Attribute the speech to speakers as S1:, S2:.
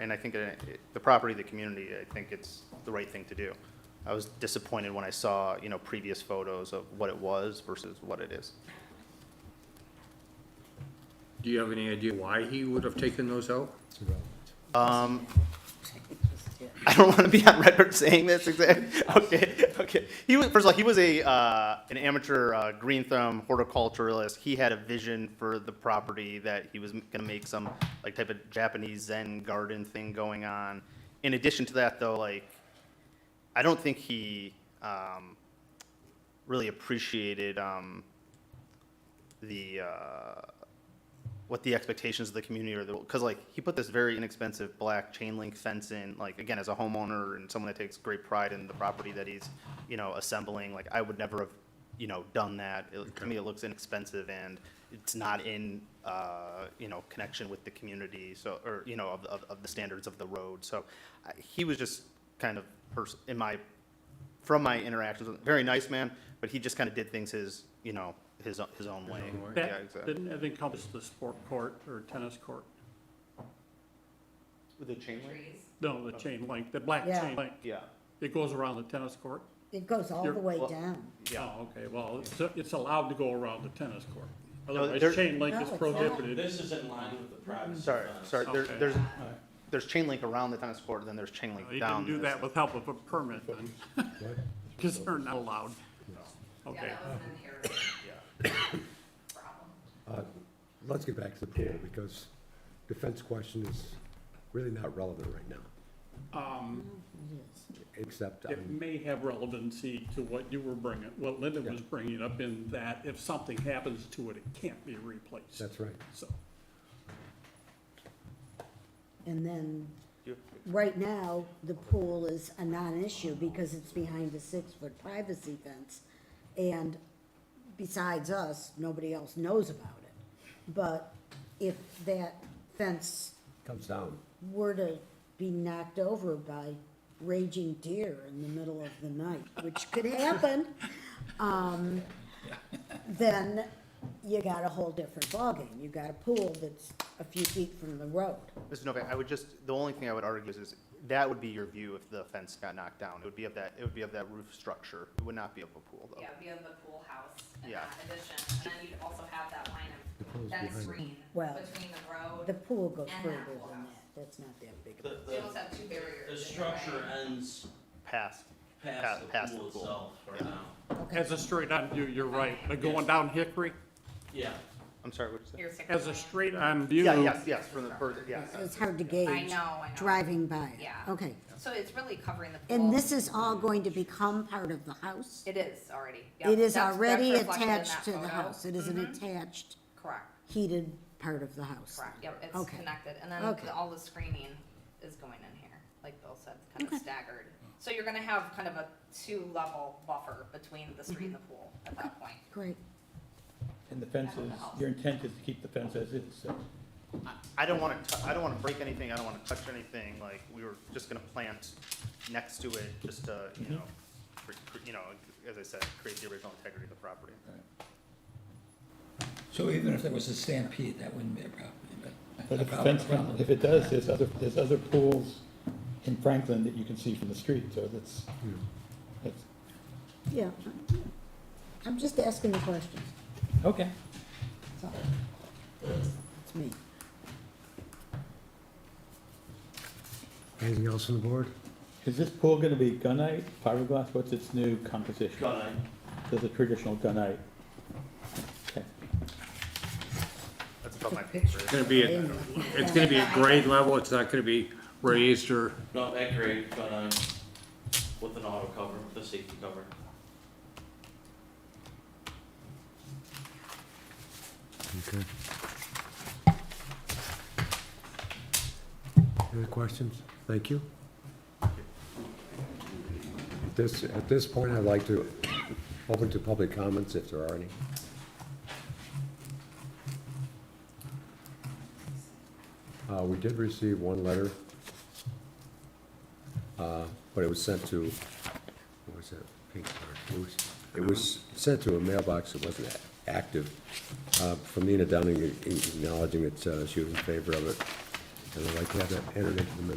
S1: And I think uh, it- the property, of the community, I think it's the right thing to do. I was disappointed when I saw, you know, previous photos of what it was versus what it is.
S2: Do you have any idea why he would have taken those out?
S1: Um, I don't want to be on record saying this exactly. Okay, okay. He was first of all, he was a uh, an amateur uh, green thumb horticulturalist. He had a vision for the property that he was going to make some like type of Japanese Zen garden thing going on. In addition to that, though, like I don't think he um, really appreciated um, the. Uh, what the expectations of the community are, because like, he put this very inexpensive black chain link fence in, like, again, as a homeowner and someone that takes great pride in the property that he's, you know, assembling, like, I would never have, you know, done that. It- To me, it looks inexpensive and it's not in, uh, you know, connection with the community, so, or, you know, of, of, of the standards of the road, so I- he was just kind of, pers- in my from my interactions with him, very nice man, but he just kind of did things his, you know, his, o- his own way.
S2: own way.
S1: Yeah,
S3: That
S1: exactly.
S3: didn't encompass the sport court or tennis court.
S1: With the chain link?
S3: No,
S1: Oh.
S3: the chain link, the black
S4: Yeah.
S3: chain link.
S1: Yeah.
S3: It goes around the tennis court.
S4: It goes all
S3: You're-
S4: the way
S1: well-
S4: down.
S3: Yeah. Okay, well, it's, it's allowed to go around the tennis court.
S1: No, there-
S3: Otherwise, chain link is
S4: No, Oh, it's not.
S3: prohibited.
S5: This is in line with the privacy.
S1: Sorry,
S5: policy.
S1: sorry, there,
S3: Uh, Okay. Oh,
S1: there's, there's chain link around the tennis court, then there's chain link
S3: You
S1: down.
S3: can do
S1: this-
S3: that with help of a permit then, because they're not allowed. Okay.
S6: Let's get back to the pool, because the fence question is really not relevant right now,
S3: Um,
S6: except,
S3: It
S6: um,
S3: may have relevancy to what you were bringing, what Linda was bringing up in that if something happens to it, it can't be replaced.
S6: that's right.
S3: So,
S4: And then,
S1: You-
S4: right now, the pool is a non-issue because it's behind a six-foot privacy fence. And besides us, nobody else knows about it. But if that fence
S6: Comes down.
S4: were to be knocked over by raging deer in the middle of the night, which could happen, um, then you got a whole different ballgame. You got a pool that's a few feet from the road.
S1: Mr. Novak, I would just, the only thing I would argue is, is that would be your view if the fence got knocked down. It would be of that, it would be of that roof structure. It would not be of a pool, though.
S7: Yeah, we have the pool house and
S1: Yeah.
S7: that addition, and then you'd also have that line
S6: The pool's
S7: of, that
S6: behind it.
S7: screen
S4: Well,
S7: between the road.
S4: The pool goes
S7: And
S4: further
S7: that pool
S4: than
S7: house.
S4: that. That's not that big.
S5: The,
S4: of a-
S7: So you
S5: the,
S7: almost have two barriers.
S5: the
S7: in there,
S5: structure
S7: right?
S5: ends
S1: Past, Pa-
S5: past
S1: past
S5: the pool
S1: the pool.
S5: itself right now.
S3: as a straight on view, you're right, but going down Hickory,
S5: Yeah,
S1: I'm sorry, what did you say?
S7: Here's six
S3: as a
S7: million.
S3: straight on view.
S1: Yeah, yes, yes, from the, further- yes.
S4: It's hard to gauge.
S7: I know, I know.
S4: Driving by it.
S7: Yeah.
S4: Okay.
S7: So it's really covering the pool.
S4: And this is all going to become part of the house?
S7: It is already. Yep,
S4: It is
S7: that's- that's
S4: already
S7: reflected in
S4: attached
S7: that
S4: to the
S7: photo. Mm-hmm.
S4: house. It is an attached
S7: Correct,
S4: heated part of the house.
S7: correct, yep, it's
S4: Okay.
S7: connected, and then
S4: Okay.
S7: the- all the screening is going in here, like Bill said, kind
S4: Okay.
S7: of staggered. So you're gonna have kind of a two-level buffer between the street and the pool at that point.
S4: Great.
S8: And the fence is, your intent is to keep the fence as is, so.
S1: I don't want to, I don't want to break anything, I don't want to touch anything, like, we were just gonna plant next to it, just to, you know, cre- cre- you know, as I said, create the original integrity of the property.
S9: So even if there was a stampede, that wouldn't be a problem, but.
S8: But
S9: a
S8: if the
S9: problem-
S8: fence,
S9: problem.
S8: if it does, there's other, there's other pools in Franklin that you can see from the street, so that's, that's,
S4: Yeah. I'm just asking the questions.
S8: okay.
S4: That's all. It's me.
S6: Anything else on the board?
S8: Is this pool gonna be gunite, fiberglass, what's its new composition?
S5: gunite.
S8: There's a traditional gunite. Okay.
S1: That's above my pay grade.
S2: It's gonna be, at- it's gonna be at grade level, it's not gonna be raised or,
S5: Not that great, gunite, with an auto cover, with a safety cover.
S6: Okay. Any questions? Thank you. At this, at this point, I'd like to open to public comments if there are any. Uh, we did receive one letter, uh, but it was sent to, what was that, pink card? It was, it was sent to a mailbox that wasn't active, uh, from Nina Downing acknowledging that, uh, she was in favor of it. And I'd like to have that entered into the minutes.